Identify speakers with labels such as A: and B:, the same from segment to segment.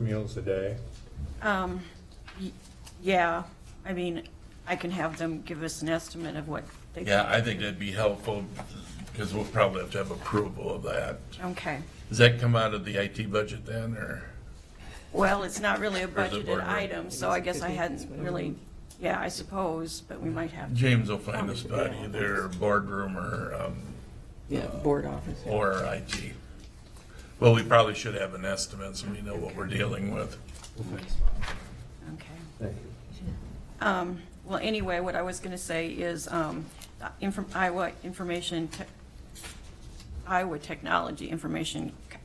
A: meals a day.
B: Um, y- yeah, I mean, I can have them give us an estimate of what they.
C: Yeah, I think that'd be helpful, because we'll probably have to have approval of that.
B: Okay,
C: Does that come out of the IT budget then, or?
B: well, it's not really a
C: Where's the
B: budgeted
C: board room?
B: item, so I guess I hadn't really, yeah, I suppose, but we might have. to.
C: James will find us about either boardroom or, um,
D: Yeah, board office.
C: or IT. Well, we probably should have an estimate, so we know what we're dealing with.
B: Okay.
A: Thank you.
B: Um, Well, anyway, what I was going to say is um, infor- Iowa Information, Tech- Iowa Technology Information, Co-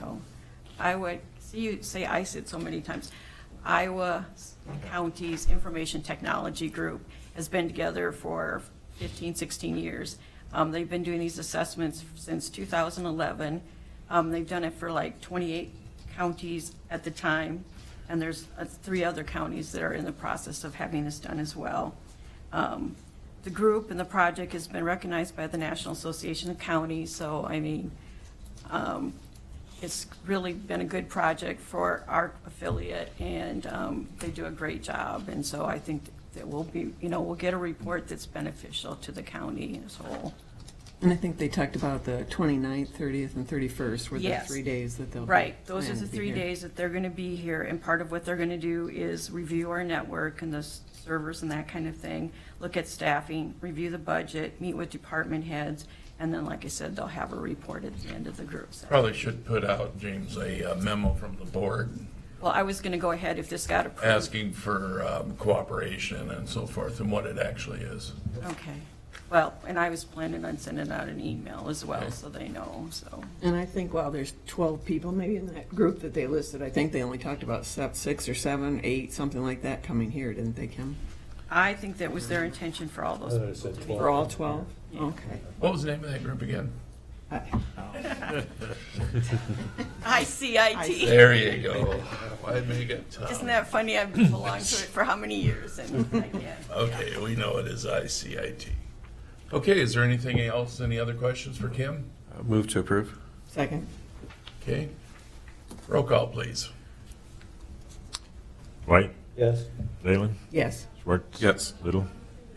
B: no, Iowa, see you say ICID so many times. Iowa Counties Information Technology Group has been together for 15, 16 years. Um, They've been doing these assessments since 2011. Um, They've done it for like 28 counties at the time, and there's uh, three other counties that are in the process of having this done as well. Um, The group and the project has been recognized by the National Association of Counties, so I mean, um, it's really been a good project for our affiliate, and um, they do a great job, and so I think that we'll be, you know, we'll get a report that's beneficial to the county as a whole.
D: And I think they talked about the 29th, 30th, and 31st were the
B: Yes.
D: three days that they'll. be
B: Right, those are
D: planned
B: the
D: to be
B: three
D: here.
B: days that they're gonna be here, and part of what they're gonna do is review our network and the s- servers and that kind of thing, look at staffing, review the budget, meet with department heads, and then, like I said, they'll have a report at the end of the group. session.
C: Probably should put out, James, a uh, memo from the board
B: Well, I was gonna go ahead if this got approved.
C: asking for um, cooperation and so forth, and what it actually is.
B: Okay, well, and I was planning on sending out an email as well,
C: Okay.
B: so they know, so,
D: And I think while there's 12 people maybe in that group that they listed, I think they only talked about se- six or seven, eight, something like that coming here, didn't they, Kim?
B: I think that was their intention for all
A: I thought
B: those.
A: it said
D: For all
A: 12.
D: 12? Okay.
C: What was the name of that group again?
B: ICIT,
C: There you go. Why make it tough?
B: isn't that funny, I've belonged to it for how many years, and I can't.
C: Okay, we know it is ICIT. Okay, is there anything else, any other questions for Kim?
E: Move to approve.
D: Second?
C: Okay, roll call, please.
F: White,
A: Yes,
F: Leyland,
D: Yes.
F: Schwartz.
E: Yes.
F: Little.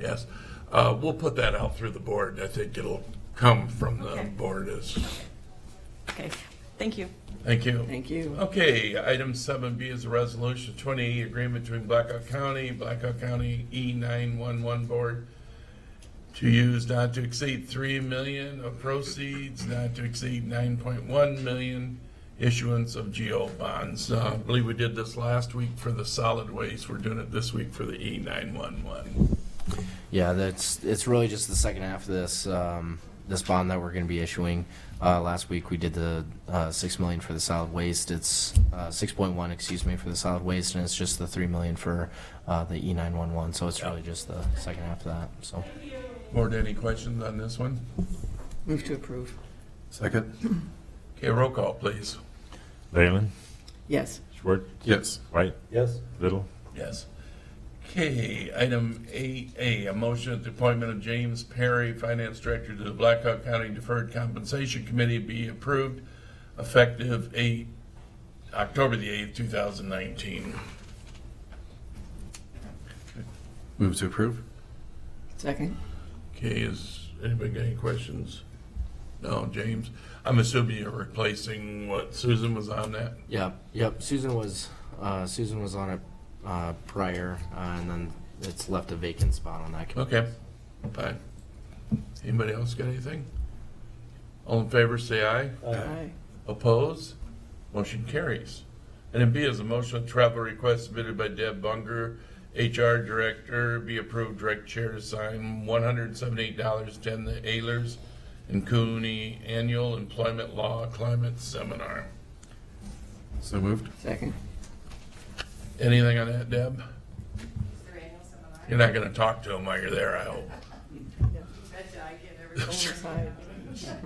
C: Yes, uh, we'll put that out through the board. I think it'll come from the
B: Okay.
C: board as,
B: Okay, thank you.
C: thank you.
D: Thank you.
C: Okay, item seven B is a resolution twenty agreement between Blackhawk County, Blackhawk County E nine one one board to use not to exceed three million of proceeds, not to exceed nine point one million issuance of GO bonds. Uh, I believe we did this last week for the solid waste. We're doing it this week for the E nine one one.
G: Yeah, that's it's really just the second half of this um, this bond that we're going to be issuing. Uh, last week we did the uh, six million for the solid waste. It's uh, six point one, excuse me, for the solid waste, and it's just the three million for uh, the E nine one one. So it's really just the second half of that. So.
C: Board, any questions on this one?
D: Move to approve.
E: Second?
C: Okay, roll call, please.
F: Leyland,
D: Yes.
F: Schwartz,
E: Yes.
F: White,
A: yes,
F: Little.
C: Yes. Okay, item eight A, a motion that the appointment of James Perry, Finance Director to the Blackhawk County Deferred Compensation Committee be approved effective eight, October the eighth, two thousand nineteen.
E: Move to approve.
D: Second?
C: Okay, is anybody got any questions? No, James, I'm assuming you're replacing what Susan was on that?
G: Yep, yep. Susan was, uh, Susan was on it, uh, prior, uh, and then it's left a vacant spot on that. committee.
C: Okay, fine. Anybody else got anything? All in favor, say aye.
D: Aye.
C: Opposed? Motion carries. Item B is a motion of travel request submitted by Deb Bunger, HR Director, be approved, direct chair to sign one hundred and seventy-eight dollars, ten the Ayers and Cooney Annual Employment Law Climate Seminar.
E: So moved.
D: Second?
C: Anything on that, Deb? You're not gonna talk to him while you're there, I hope.
D: Side.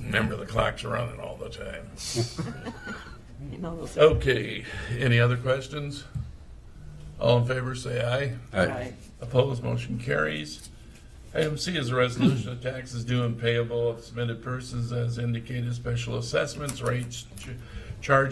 C: Remember, the clock's running all the time.
D: You know those-
C: Oh. Okay, any other questions? All in favor, say aye.
D: Aye.
C: Opposed, motion carries. Item C is a resolution of taxes due and payable of submitted persons as indicated, special assessments, rates, ch- charges